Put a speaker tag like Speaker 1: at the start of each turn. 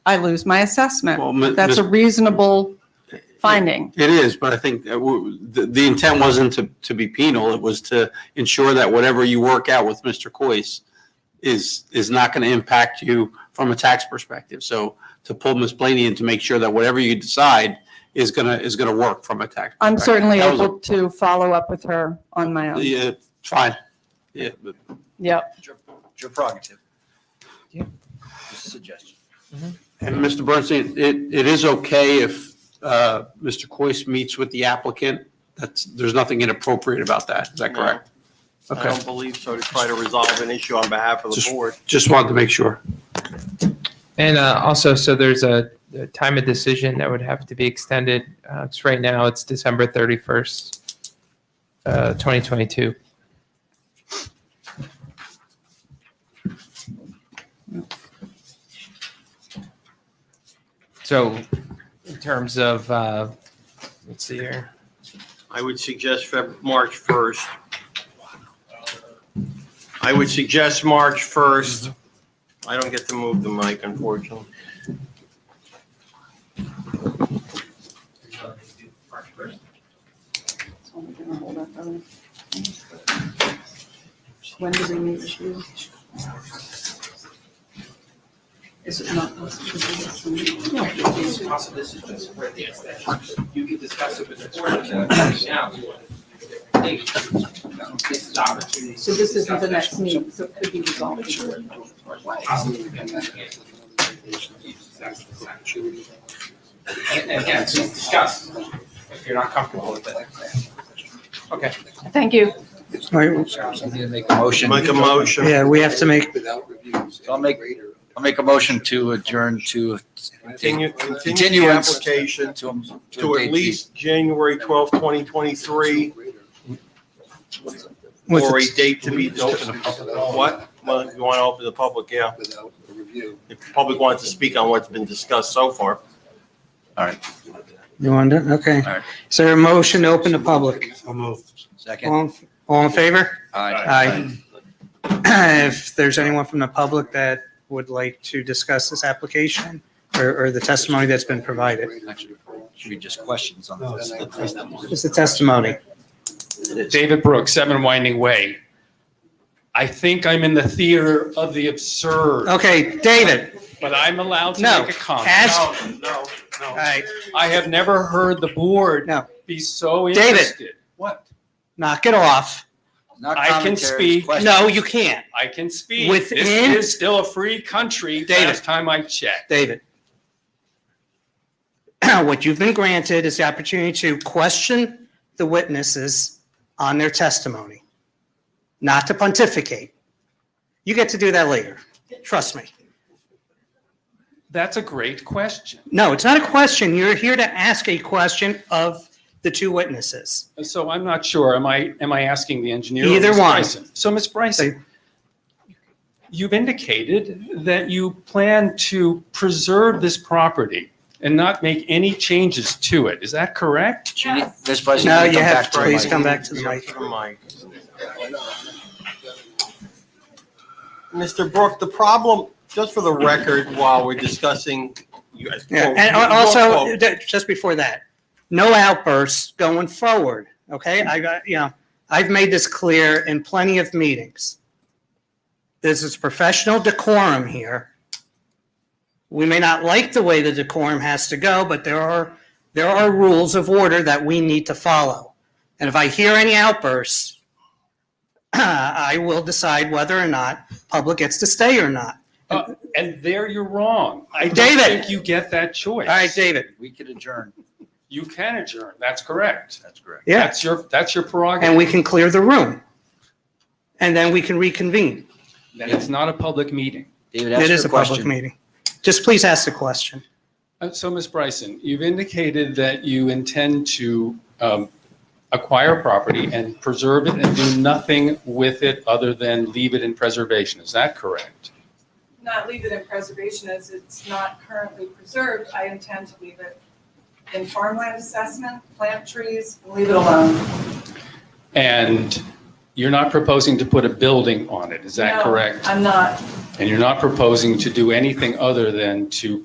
Speaker 1: I lose my assessment.
Speaker 2: Well, Mi-
Speaker 1: That's a
Speaker 2: Mis-
Speaker 1: reasonable finding.
Speaker 2: It is, but I think that w- the, the intent wasn't to, to be penal. It was to ensure that whatever you work out with Mr. Coyce is, is not going to impact you from a tax perspective. So to pull Ms. Blaney in to make sure that whatever you decide is going to, is going to work from a tax.
Speaker 1: I'm
Speaker 2: perspective.
Speaker 1: certainly
Speaker 2: That was a-
Speaker 1: able to follow up with her on my own.
Speaker 2: Yeah, fine. Yeah, but-
Speaker 1: Yep.
Speaker 3: It's your- it's your prerogative. Just a suggestion.
Speaker 2: and Mr. Bernstein, it, it is okay if, uh, Mr. Coyce meets with the applicant. That's, there's nothing inappropriate about that. Is that
Speaker 4: No.
Speaker 2: correct?
Speaker 4: I
Speaker 2: Okay,
Speaker 4: don't believe so, to try to resolve an issue on behalf of the
Speaker 2: Just-
Speaker 4: board.
Speaker 2: just wanted to make sure.
Speaker 5: And uh, also, so there's a, a time of decision that would have to be extended. Uh, 'cause right now, it's December 31st, uh, 2022. So, in terms of, uh, let's see here.
Speaker 4: I would suggest Feb- March 1st. I would suggest March 1st. I don't get to move the mic, unfortunately.
Speaker 1: When do we meet with you? Is it not possible to do this one?
Speaker 6: It's possible this is just for the extension. You can discuss it with the board and then now. you want to do a different thing. This is opportunity.
Speaker 1: So this isn't the next meeting, so it could be resolved.
Speaker 6: Possibly we can then get the- And and again, just discuss if you're not comfortable with it.
Speaker 5: Okay.
Speaker 1: Thank you.
Speaker 6: Need to make a motion.
Speaker 4: Make a motion.
Speaker 7: Yeah, we have to make,
Speaker 3: I'll make, I'll make a motion to adjourn to,
Speaker 4: Continue, continue the
Speaker 3: Continuance.
Speaker 4: application
Speaker 3: to.
Speaker 4: to at least January 12th, 2023,
Speaker 7: with
Speaker 4: or a
Speaker 7: the-
Speaker 4: date to be open. What? Well, if you want to open the public, yeah.
Speaker 6: Without a review.
Speaker 4: If the public wants to speak on what's been discussed so far.
Speaker 7: you want to, okay.
Speaker 3: All right.
Speaker 7: Is there a motion to open to public?
Speaker 3: Second.
Speaker 7: All, all in favor?
Speaker 3: Aye.
Speaker 7: If there's anyone from the public that would like to discuss this application or, or the testimony that's been provided,
Speaker 3: Actually, Should be just questions on this.
Speaker 7: just the testimony.
Speaker 8: David Brooks, Seven Winding Way. I think I'm in the theater of the absurd,
Speaker 7: Okay, David,
Speaker 8: but I'm allowed to
Speaker 7: No.
Speaker 8: make a comment.
Speaker 7: ask, all
Speaker 4: No, no, no.
Speaker 7: right,
Speaker 8: I have never heard the board
Speaker 7: No.
Speaker 8: be so
Speaker 7: David.
Speaker 8: interested.
Speaker 3: What?
Speaker 7: knock it off.
Speaker 3: Not
Speaker 8: I can
Speaker 3: commentaries,
Speaker 8: speak.
Speaker 3: questions.
Speaker 7: No, you can't,
Speaker 8: I can speak.
Speaker 7: Within-
Speaker 8: This is still a free country,
Speaker 7: David.
Speaker 8: last time I checked.
Speaker 7: David. What you've been granted is the opportunity to question the witnesses on their testimony, not to pontificate. You get to do that later, trust me.
Speaker 8: That's a great question.
Speaker 7: No, it's not a question. You're here to ask a question of the two witnesses.
Speaker 8: So I'm not sure, am I, am I asking the engineer? or
Speaker 7: Either
Speaker 8: Ms.
Speaker 7: one.
Speaker 8: Bryson? So Ms. Bryson, you've indicated that you plan to preserve this property and not make any changes to it. Is that correct?
Speaker 3: She need- This person.
Speaker 7: No,
Speaker 3: need
Speaker 7: you
Speaker 3: come
Speaker 7: have
Speaker 3: back
Speaker 7: to
Speaker 3: the
Speaker 7: please
Speaker 3: mic.
Speaker 7: come back to the
Speaker 4: Yeah,
Speaker 7: mic.
Speaker 4: to the mic. Mr. Brook, the problem, just for the record, while we're discussing. you guys
Speaker 7: Yeah,
Speaker 4: quote-
Speaker 7: and
Speaker 4: you
Speaker 7: al- also,
Speaker 4: quote-
Speaker 7: d- just before that, no outbursts going forward, okay? I got, you know, I've made this clear in plenty of meetings. This is professional decorum here. We may not like the way the decorum has to go, but there are, there are rules of order that we need to follow. And if I hear any outbursts, I will decide whether or not public gets to stay or not.
Speaker 8: Uh, And there you're wrong. I don't
Speaker 7: David.
Speaker 8: think you get that choice.
Speaker 7: All right, David,
Speaker 3: We could adjourn.
Speaker 8: You can adjourn, that's correct.
Speaker 3: That's correct.
Speaker 7: yeah.
Speaker 8: That's your, that's your
Speaker 7: and
Speaker 8: prerogative.
Speaker 7: we can clear the room. And then we can reconvene.
Speaker 8: Then it's not a public meeting.
Speaker 3: David, ask
Speaker 7: It is
Speaker 3: your
Speaker 7: a public
Speaker 3: question.
Speaker 7: meeting. Just please ask the question.
Speaker 8: Uh, So, Ms. Bryson, you've indicated that you intend to um, acquire property and preserve it and do nothing with it other than leave it in preservation. Is that correct?
Speaker 9: not leave it in preservation as it's not currently preserved, I intend to leave it in farmland assessment, plant trees, and leave it alone.
Speaker 8: And you're not proposing to put a building on it, is that
Speaker 9: No.
Speaker 1: Uh,
Speaker 8: correct?
Speaker 9: I'm not
Speaker 8: And you're not proposing to do anything other than to